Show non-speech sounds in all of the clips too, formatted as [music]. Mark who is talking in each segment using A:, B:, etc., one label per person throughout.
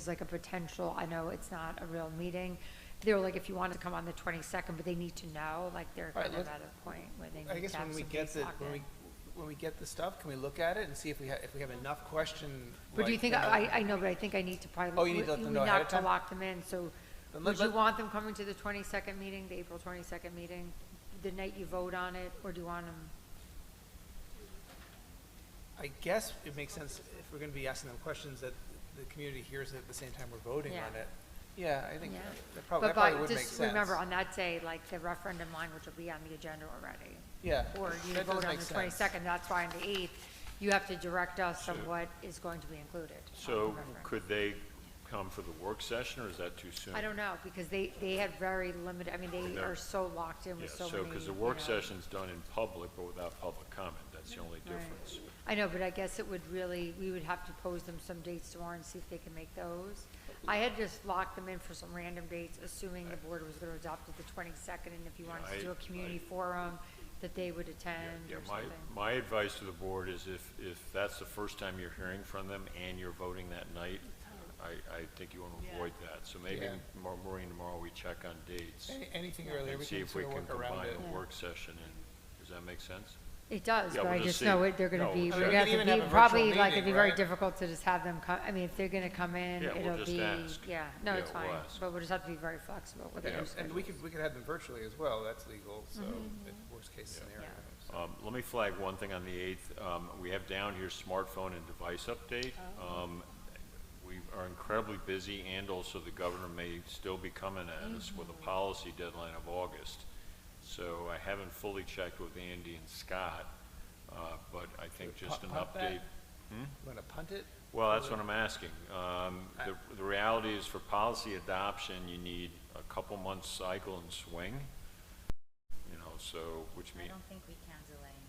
A: was like a potential, I know it's not a real meeting. They were like, if you want to come on the twenty-second, but they need to know, like, they're
B: All right,
A: kind of
B: let-
A: at a point where they
B: I
A: need
B: guess
A: to have
B: when we
A: some
B: get
A: dates
B: the,
A: locked
B: when we,
A: in.
B: when we get the stuff, can we look at it and see if we have, if we have enough question?
A: But do you
B: like,
A: think, I, I know, but I think I need to probably.
B: Oh, you need to let
A: we-
B: them
A: we
B: know ahead
A: not
B: of
A: to
B: time?
A: Lock them in, so
B: Then let-
A: would you
B: let-
A: want them coming to the twenty-second meeting, the April twenty-second meeting, the night you vote on it, or do you want them?
B: I guess it makes sense if we're gonna be asking them questions that the community hears it at the same time we're voting on
A: Yeah.
B: it. Yeah, I think
A: Yeah.
B: that probably,
A: But
B: that probably
A: by-
B: would make
A: Just remember,
B: sense.
A: on that day, like, the referendum language will be on the agenda already.
B: Yeah.
A: Or you
B: that does
A: vote on
B: make
A: the
B: sense.
A: twenty-second, that's why on the eighth, you have to direct us on what is going to be included. on the
C: So
A: referendum.
C: could uh, they come for the work session, or is that too soon?
A: I don't know, because they, they had very limited, I mean, they
C: No.
A: are so locked in
C: Yeah,
A: with so many.
C: so, because the work
A: you know.
C: session's done in public, but without public comment, that's the only
A: Right.
C: difference.
A: I know, but I guess it would really, we would have to pose them some dates tomorrow and see if they can make those. I had just locked them in for some random dates, assuming the board was gonna adopt it the twenty-second, and if you
C: Yeah,
A: wanted
C: I-
A: to do a community
C: I-
A: forum, that they would attend
C: Yeah,
A: or
C: my,
A: something.
C: my advice to the board is if, if that's the first time you're hearing from them and you're voting that night, I, I think you want to avoid that. So maybe
B: Yeah.
C: tomorrow morning, tomorrow, we check on dates
B: Any- Anything earlier,
C: and
B: we
C: see
B: can
C: if we
B: sort of work
C: can
B: around
C: combine
B: it.
C: the work session in. Does that make sense?
A: It does,
C: Yeah,
A: but
C: we'll
A: I
C: just
A: just
C: see.
A: know it, they're gonna
C: No,
A: be,
C: I
A: we
C: mean, we
A: have
B: can
A: to
B: even have
A: be,
B: a virtual
A: probably like, it'd
B: meeting,
A: be very
B: right?
A: difficult to just have them come, I mean, if they're gonna come in,
C: Yeah, we'll
A: it'll
C: just
A: be,
C: ask.
A: yeah, no,
C: Yeah,
A: it's
C: we'll
A: fine.
C: ask.
A: But we'll just have to be very flexible with
C: Yeah,
A: it.
B: And- And we could, we could have them virtually as well, that's legal, so,
A: Mm-hmm.
B: if worst case scenario. so.
C: Um, Let me flag one thing on the 8th. Um, We have down here smartphone and device update. Um, We are incredibly busy, and also the governor may still be coming at us with a policy deadline of August. So I haven't fully checked with Andy and Scott, uh, but I think
B: Pu-
C: just an
B: punt that?
C: update.
B: Wanna punt it?
C: Well, that's what I'm asking. Um, The the reality is for policy adoption, you need a couple months cycle and swing, you know, so, which
D: I
C: means,
D: don't think we can delay.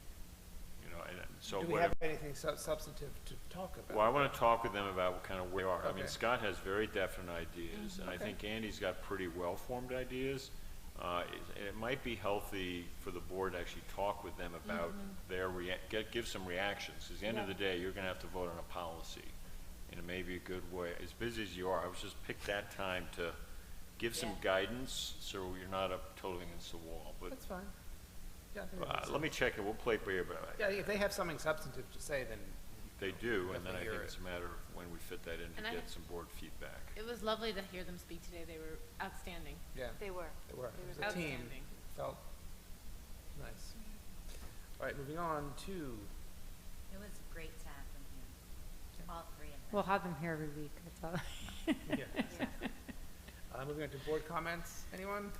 C: you know, and so
B: Do
C: whatever.
B: we have anything sub- substantive to talk
C: Well, I
B: about?
C: want to talk with them about kind of where we are. I
B: Okay.
C: mean, Scott has very definite ideas, and I think Andy's got pretty well-formed ideas. Uh, it- And it might be healthy for the board to actually talk with them about their, rea- get, give some reactions. Because at the end of the day, you're going to have to vote on a policy, and it may be a good way, as busy as you are, I was just pick that time to give some
D: Yeah.
C: guidance, so you're not up totally against the wall. But
B: That's fine. Yeah, I think that
C: uh,
B: makes
C: let me
B: sense.
C: check it, we'll play it by ear, but I-
B: Yeah, if they have something substantive to say, then.
C: they do, and then
B: Definitely
C: I
B: hear
C: think
B: it.
C: it's a matter of when we fit that in
E: And
C: to
E: I
C: get
E: have-
C: some board feedback.
E: It was lovely to hear them speak today. They were outstanding.
B: Yeah,
D: They were.
B: they were.
D: They
B: It was
D: were
B: a team.
E: outstanding.
B: Felt nice. All right, moving on to,
D: It was great to have them here, all three of
A: We'll
D: them.
A: have them here every week, that's all.
B: yeah,
D: Yeah.
B: uh, moving on to board comments. Anyone?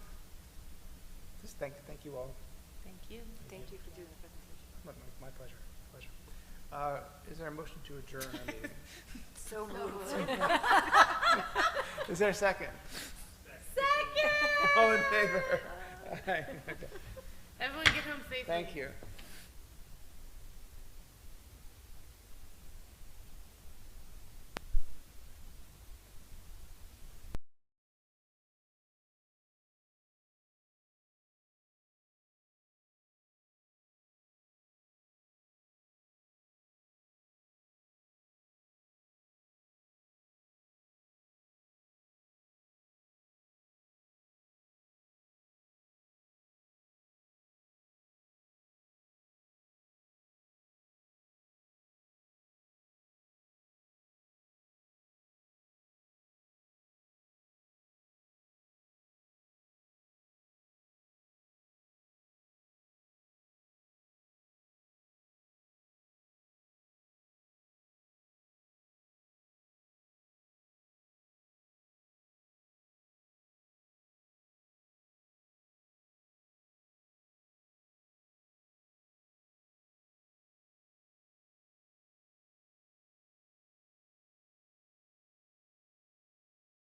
B: Just thank, thank you all.
E: Thank you.
B: Thank
D: you for doing the presentation.
B: My, my- my pleasure, pleasure. Uh, is there a motion to adjourn our meeting?
D: [laughs] So
B: [laughs] Is there a second? Second! All in favor?
E: Everyone get home safely.
B: Thank you.